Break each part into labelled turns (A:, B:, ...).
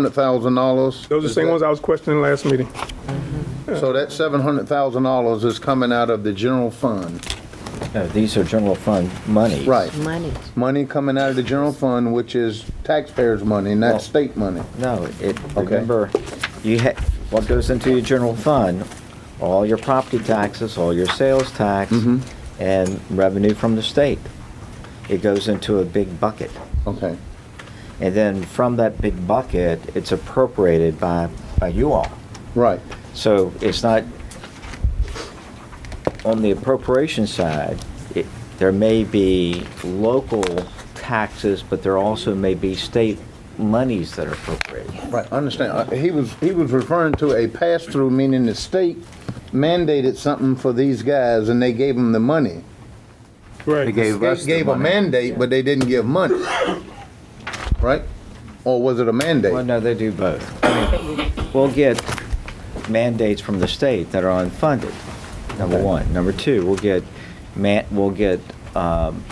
A: Hundred thousand dollars.
B: Those are the same ones I was questioning last meeting.
A: So that seven hundred thousand dollars is coming out of the general fund.
C: No, these are general fund money.
A: Right.
D: Money.
A: Money coming out of the general fund, which is taxpayers' money,
C: Well-
A: not state money.
C: No, it,
A: Okay.
C: remember, you ha, what goes into your general fund, all your property taxes, all your sales tax,
A: Mm-hmm.
C: and revenue from the state. It goes into a big bucket.
A: Okay.
C: And then from that big bucket, it's appropriated by, by you all.
A: Right.
C: So it's not, on the appropriation side, it, there may be local taxes, but there also may be state monies that are appropriated.
A: Right. I understand. Uh, He was, he was referring to a pass-through, meaning the state mandated something for these guys and they gave them the money.
B: Right.
A: Gave Gave a mandate, but they didn't give money. Right? Or was it a
C: Well,
A: mandate?
C: no, they do both. We'll get mandates from the state that are unfunded, number one. Number two, we'll get man, we'll get, um,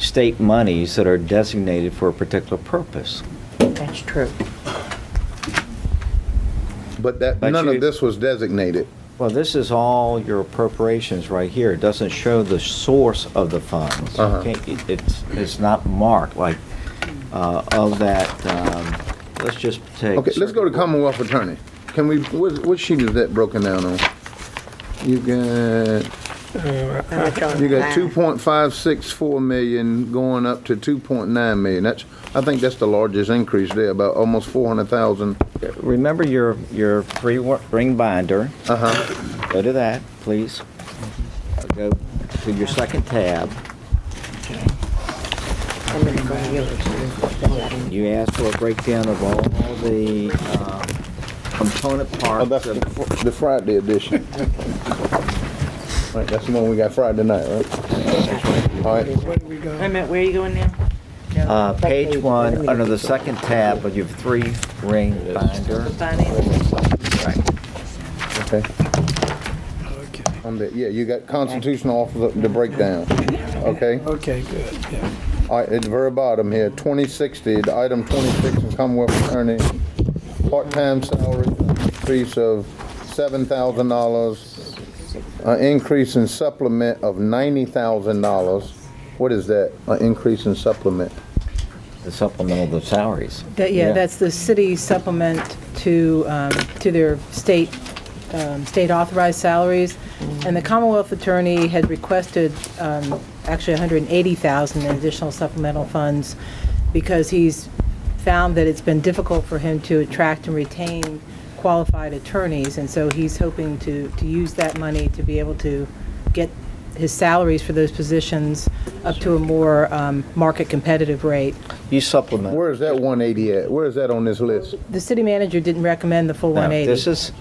C: state monies that are designated for a particular purpose.
D: That's true.
A: But that,
C: But
A: none
C: you-
A: of this was designated.
C: Well, this is all your appropriations right here. It doesn't show the source of the funds.
A: Uh-huh.
C: Okay, It- It's, it's not marked like, uh, of that, um, let's just take.
A: Okay, let's go to Commonwealth Attorney. Can we, what, what sheet is that broken down on? You got, you got two point five six four million going up to two point nine million. That's, I think that's the largest increase there, about almost four hundred thousand.
C: Remember your, your three wa- ring binder.
A: Uh-huh,
C: Go to that, please. Go to your second tab.
D: I'm gonna go to yours.
C: You asked for a breakdown of all the um, component
A: oh,
C: parts
A: that's
C: of
A: the, fr- the Friday edition. Right, that's the one we got Friday night, right? All right,
E: Wait a minute, where are you going now?
C: uh,
D: Back
C: page
D: page, wait a
C: one,
D: minute.
C: under the second tab of your three ring binder.
E: The finance?
A: okay. On the, yeah, you got constitutional officer, the breakdown, okay?
F: Okay, good, yeah.
A: All right, at the very bottom here, 2060, the item 26 in Commonwealth Attorney, part-time salary increase of $7,000, an uh, increase in supplement of $90,000. What is that, an increase in supplement?
C: The supplemental of the salaries.
G: That, yeah, that's the city supplement to, um, to their state, um, state authorized salaries. And the Commonwealth Attorney had requested, um, actually 180,000 in additional supplemental funds because he's found that it's been difficult for him to attract and retain qualified attorneys. And so he's hoping to, to use that money to be able to get his salaries for those positions up to a more, um, market competitive rate.
C: You supplement.
A: Where is that 180 at? Where is that on this list?
G: The city manager didn't recommend the full
C: No,
G: 180.
C: This is,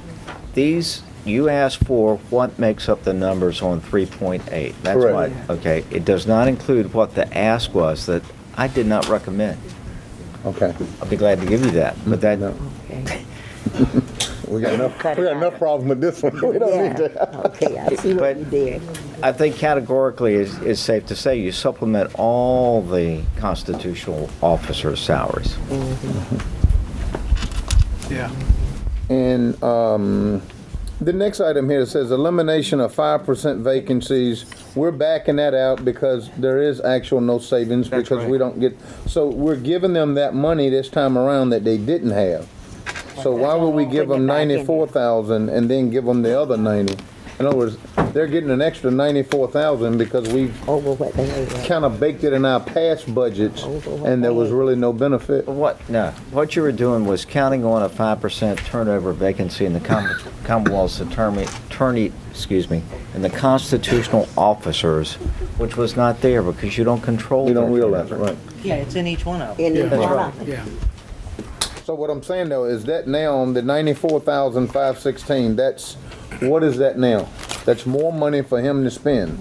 C: these, you asked for what makes up the numbers on 3.8. That's
A: Correct.
C: what, okay. It does not include what the ask was that I did not recommend.
A: Okay,
C: I'll be glad to give you that, but that,
A: No.
D: Okay.
A: we got enough, we got enough problems with this one. We don't need that.
D: Yeah, okay, I see what you
C: But-
D: did.
C: I think categorically is, is safe to say you supplement all the constitutional officers' salaries.
F: Yeah.
A: And um, the next item here says elimination of five percent vacancies. We're backing that out because there is actual no savings because we don't get, so we're giving them that money this time around that they didn't have. So why would we give them
D: Putting it back in there.
A: ninety-four thousand and then give them the other ninety? In other words, they're getting an extra ninety-four thousand because we
D: Over what they had.
A: kind of baked it in our past budgets and there was really no benefit.
C: What, no, what you were doing was counting on a 5% turnover vacancy in the Com- Commonwealth's attorney, attorney, excuse me, in the constitutional officers, which was not there because you don't control.
A: We don't
C: their
A: realize, it,
C: turnover.
A: right?
E: Yeah, it's in each one of them.
D: In the
C: that's
D: bottom.
F: Yeah.
A: So what I'm saying though is that now on the ninety-four thousand five sixteen, that's, what is that now? That's more money for him to spend.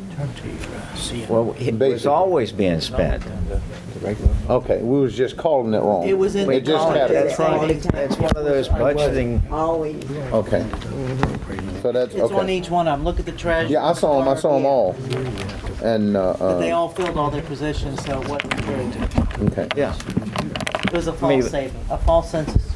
C: Well, it was
A: Basically.
C: always being spent.
A: Okay, we was just calling it wrong.
E: It was in
A: It
E: the
A: just
E: budget.
A: happened.
C: That's right. That's one of those budgeting,
D: Always.
A: Okay. So that's,
E: It's on
A: okay.
E: each one of them. Look at the treasurer.
A: Yeah, I saw him, I saw them all. And, uh,
E: But they
A: uh,
E: all filled all their positions, so it wasn't, really-
A: okay.
C: yeah.
E: it was a
C: I mean-
E: false saving, a false sense of